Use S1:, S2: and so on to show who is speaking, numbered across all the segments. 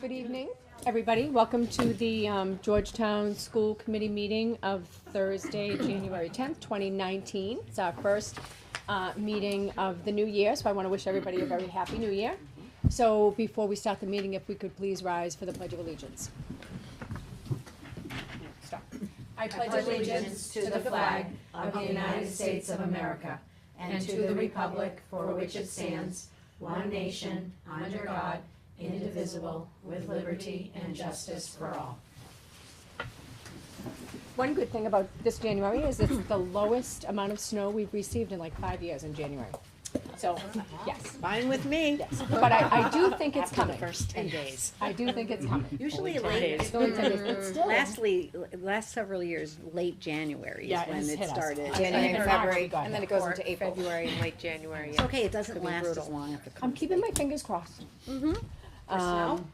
S1: Good evening, everybody. Welcome to the um, Georgetown School Committee meeting of Thursday, January 10th, 2019. It's our first uh, meeting of the new year, so I want to wish everybody a very happy new year. So before we start the meeting, if we could please rise for the Pledge of Allegiance. Stop. I
S2: pledge allegiance to the flag of the United States of America and to the republic for which it stands, one nation, under God, indivisible, with liberty and justice for all.
S1: One good thing about this January is it's the lowest amount of snow we've received in like five years in January. So, yes,
S3: Fine with me.
S1: yes, but I, I do think it's coming.
S3: First ten days.
S1: I do think it's coming.
S3: Usually
S4: Only 10
S3: late.
S4: days.
S1: It's only 10 days, but still-
S3: Lastly, last several years, late January
S1: Yeah,
S3: is
S1: it
S3: when
S1: just hit
S3: it
S1: us.
S3: started.
S1: It's
S5: January,
S1: even
S5: and
S1: longer
S5: February,
S1: we've got
S5: and then
S1: now.
S5: it goes into April.
S4: February and late January.
S3: It's okay, it doesn't
S4: be
S3: last as
S4: brutal.
S3: long after.
S1: I'm keeping my fingers crossed. Um,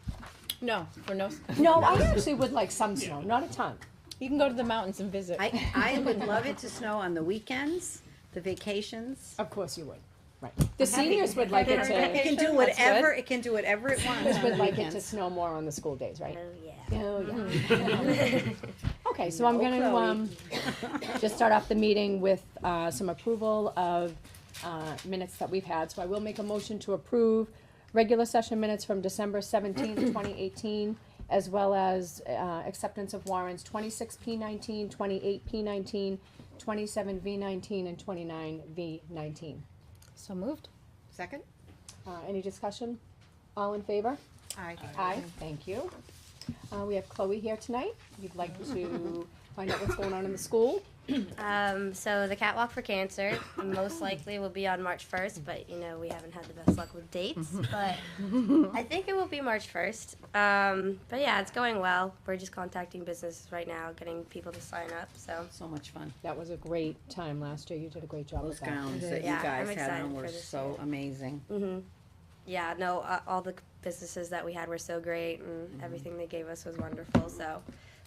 S5: No, for no.
S1: No, I actually would like some snow, not a ton.
S5: You can go to the mountains and visit.
S3: I, I would love it to snow on the weekends, the vacations.
S1: Of course you would, right. The seniors would like it
S3: It
S1: to,
S3: can do whatever, it can do whatever it wants
S1: seniors
S3: on
S1: would
S3: the
S1: like it to
S3: weekends.
S1: snow more on the school days, right?
S3: yeah.
S1: Oh,
S2: Mm-hmm.
S1: yeah. Okay, so I'm
S3: No,
S1: gonna,
S3: Chloe.
S1: um, just start off the meeting with, uh, some approval of, uh, minutes that we've had. So I will make a motion to approve regular session minutes from December seventeenth, twenty eighteen, as well as, uh, acceptance of warrants twenty-six P nineteen, twenty-eight P nineteen, twenty-seven V nineteen, and twenty-nine V nineteen.
S5: So moved.
S4: Second?
S1: Uh, any discussion? All in favor?
S4: Aye.
S1: Aye, thank you. Uh, we have Chloe here tonight. You'd like to find out what's going on in the school?
S6: Um, so the catwalk for cancer most likely will be on March 1st, but you know we haven't had the best luck with dates. But I think it will be March 1st. Um, but yeah, it's going well. We're just contacting businesses right now, getting people to sign up. So
S3: So much fun.
S1: That was a great time last year. You did a great job with
S3: Those
S1: that.
S3: gowns that you
S6: Yeah, I'm
S3: guys had
S6: excited
S3: on
S6: for
S3: were
S6: this
S3: so
S6: year.
S3: amazing.
S6: mhm. yeah, no, uh, all the businesses that we had were so great, and everything they gave us was wonderful. So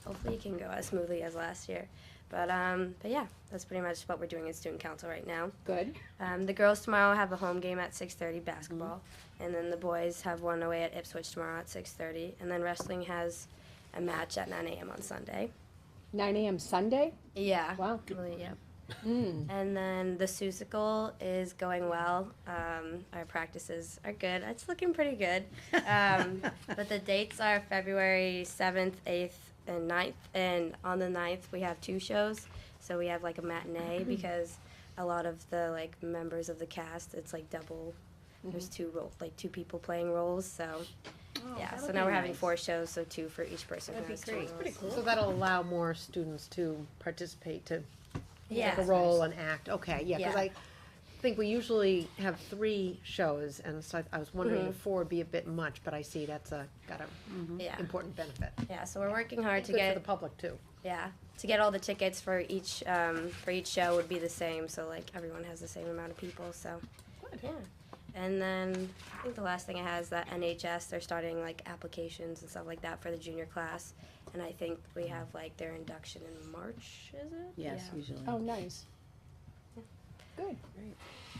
S6: hopefully it can go as smoothly as last year. But um, but yeah, that's pretty much what we're doing in student council right now.
S1: Good.
S6: Um, the girls tomorrow have a home game at 6:30 basketball, and then the boys have one away at Ipswich tomorrow at 6:30, and then wrestling has a match at 9 a.m. on Sunday.
S1: Nine AM Sunday?
S6: Yeah.
S1: Wow.
S6: Really, yeah.
S1: Mm.
S6: And then the Susicle is going well. Um, our practices are good. It's looking pretty good.
S1: Oh,
S6: Um, but the dates are February 7th, 8th, and 9th. And on the 9th, we have two shows. So we have like a matinee because a lot of the like members of the cast, it's like double. There's two role, like two people playing roles. So
S3: Oh,
S6: yeah. So now we're having four shows, so two for each person.
S3: That'd be
S6: who has two
S3: great.
S6: roles.
S3: Pretty
S4: So that'll allow more students to participate, to
S6: Yeah.
S4: take a role and act. Okay, yeah, because
S6: Yeah.
S4: I think we usually have three shows, and so I- I was wondering
S6: Mm-hmm.
S4: if four would be a bit much, but I see that's a, got an
S6: Yeah.
S4: important benefit.
S6: Yeah. So we're working hard to
S4: Good
S6: get
S4: for the public, too.
S6: Yeah, to get all the tickets for each um, for each show would be the same, so like everyone has the same amount of people. So, yeah. And then I think the last thing I had is that NHS they're starting like applications and stuff like that for the junior class, and I think we have like their induction in March. Is it?
S3: Yes, usually.
S1: Oh,
S6: Mm.
S1: nice. Good.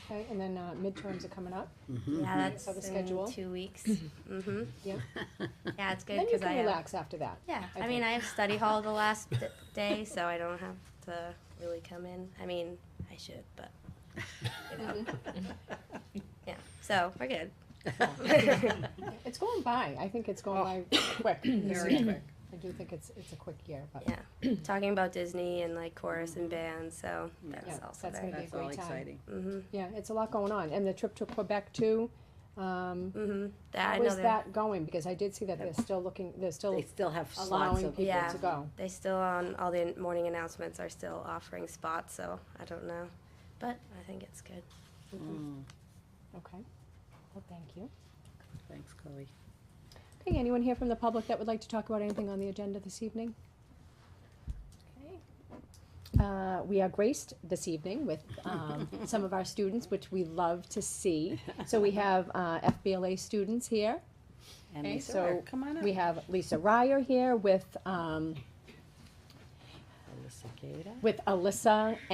S1: Okay, and then uh, midterms are coming up.
S6: Yeah, yeah that's
S1: So the
S6: in
S1: schedule?
S6: two weeks. mm-hmm.
S1: Yeah.
S6: Yeah, it's good
S1: Then you
S6: because I
S1: can
S6: have,
S1: relax after that.
S6: yeah.
S1: I
S6: I mean,
S1: think.
S6: I have study hall the last d- day, so I don't have to really come in. I mean, I should, but you know. yeah. So we're good.
S1: It's going by. I think it's going
S6: Oh.
S1: by quick.
S3: Very quick.
S1: I do think it's, it's a quick year, but
S6: Yeah. talking about Disney and like chorus and band, so that's
S1: Mm, Yeah,
S6: also
S1: that's gonna
S6: very good.
S1: be a
S3: That's all
S1: great time.
S3: exciting.
S6: Mm-hmm.
S1: Yeah, it's a lot going on. And the trip to Quebec too. Um,
S6: Mm-hmm. That I
S1: how
S6: know
S1: is
S6: they're-
S1: that going? Because I did see that they're still looking, they're
S3: They
S1: still
S3: still have slots
S1: allowing
S3: of.
S1: people
S6: Yeah.
S1: to go.
S6: they still on all the morning announcements are still offering spots, so I don't know, but I think it's good.
S3: Mm,
S1: Okay. Well, thank you.
S3: Thanks, Chloe.
S1: Okay, anyone here from the public that would like to talk about anything on the agenda this evening? Okay. Uh, we are graced this evening with, um, some of our students, which we love to see. So we have, uh, FBLA students here.
S3: And
S1: Okay,
S3: Lisa,
S1: so
S3: Ware, come on up.
S1: We have Lisa Ryer here with, um,
S3: Alyssa Gata.
S1: with Alyssa